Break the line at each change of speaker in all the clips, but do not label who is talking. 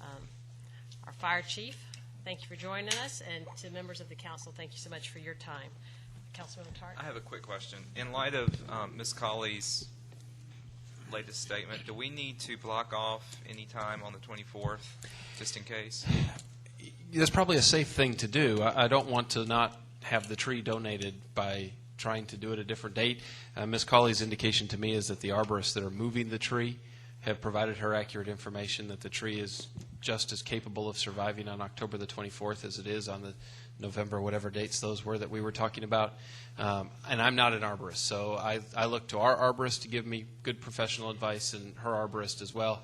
Um, our fire chief. Thank you for joining us, and to members of the council, thank you so much for your time. Councilman Tartt?
I have a quick question. In light of um, Ms. Colley's latest statement, do we need to block off any time on the 24th, just in case?
That's probably a safe thing to do. I, I don't want to not have the tree donated by trying to do it a different date. Uh, Ms. Colley's indication to me is that the arborists that are moving the tree have provided her accurate information that the tree is just as capable of surviving on October the 24th as it is on the November, whatever dates those were that we were talking about. Um, and I'm not an arborist, so I, I look to our arborist to give me good professional advice and her arborist as well.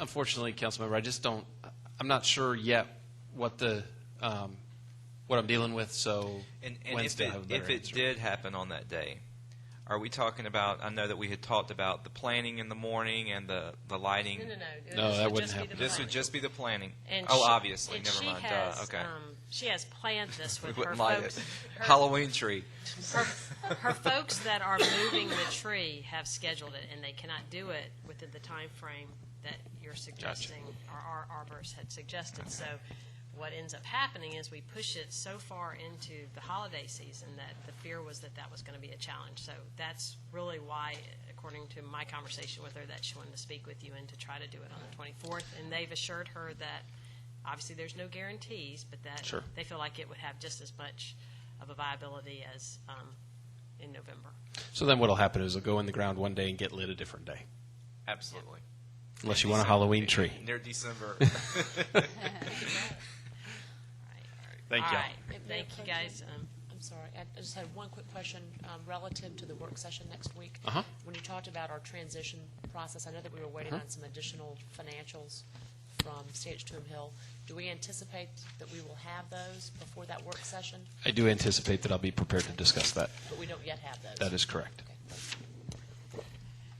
Unfortunately, Councilmember, I just don't, I'm not sure yet what the um, what I'm dealing with. So
And, and if
Wednesday,
it,
I have a
if
better
it
answer.
did happen on that day, are we talking about, I know that we had talked about the planning in the morning and the, the lighting.
No, no, no.
No,
This
that
would
wouldn't
just be the
happen.
This would
planning.
just be the planning.
And
Oh,
she-
obviously,
and
never
she
mind.
has,
Duh, Okay.
um, She has planned this
We
with her
wouldn't light it.
folks. her-
Halloween tree.
Her her folks that are moving the tree have scheduled it, and they cannot do it within the time frame that you're suggesting, or our arborist had suggested. So what ends up happening is we push it so far into the holiday season that the fear was that that was going to be a challenge. So that's really why, according to my conversation with her, that she wanted to speak with you and to try to do it on the 24th. And they've assured her that, obviously, there's no guarantees, but that
Sure.
they feel like it would have just as much of a viability as um, in November.
so then what'll happen is it'll go in the ground one day and get lit a different day,
Absolutely.
unless you want a Halloween tree.
Near December.
Thank
All
you.
right.
If they're
Thank you, guys. Um,
I'm sorry, I I just had one quick question um, relative to the work session next week.
Uh-huh.
When you talked about our transition process, I know that we were waiting
Uh-huh.
on some additional financials from CH2M Hill. Do we anticipate that we will have those before that work session?
I do anticipate that I'll be prepared to discuss that.
But we don't yet have those.
That is correct.
Okay.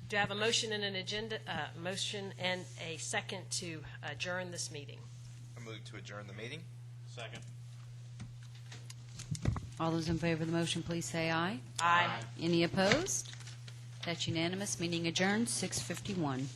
Do I have a motion and an agenda, uh, motion and a second to adjourn this meeting?
I move to adjourn the meeting.
Second.
All those in favor of the motion, please say aye.
Aye.
Any opposed? That's unanimous. Meeting adjourned, 6:51.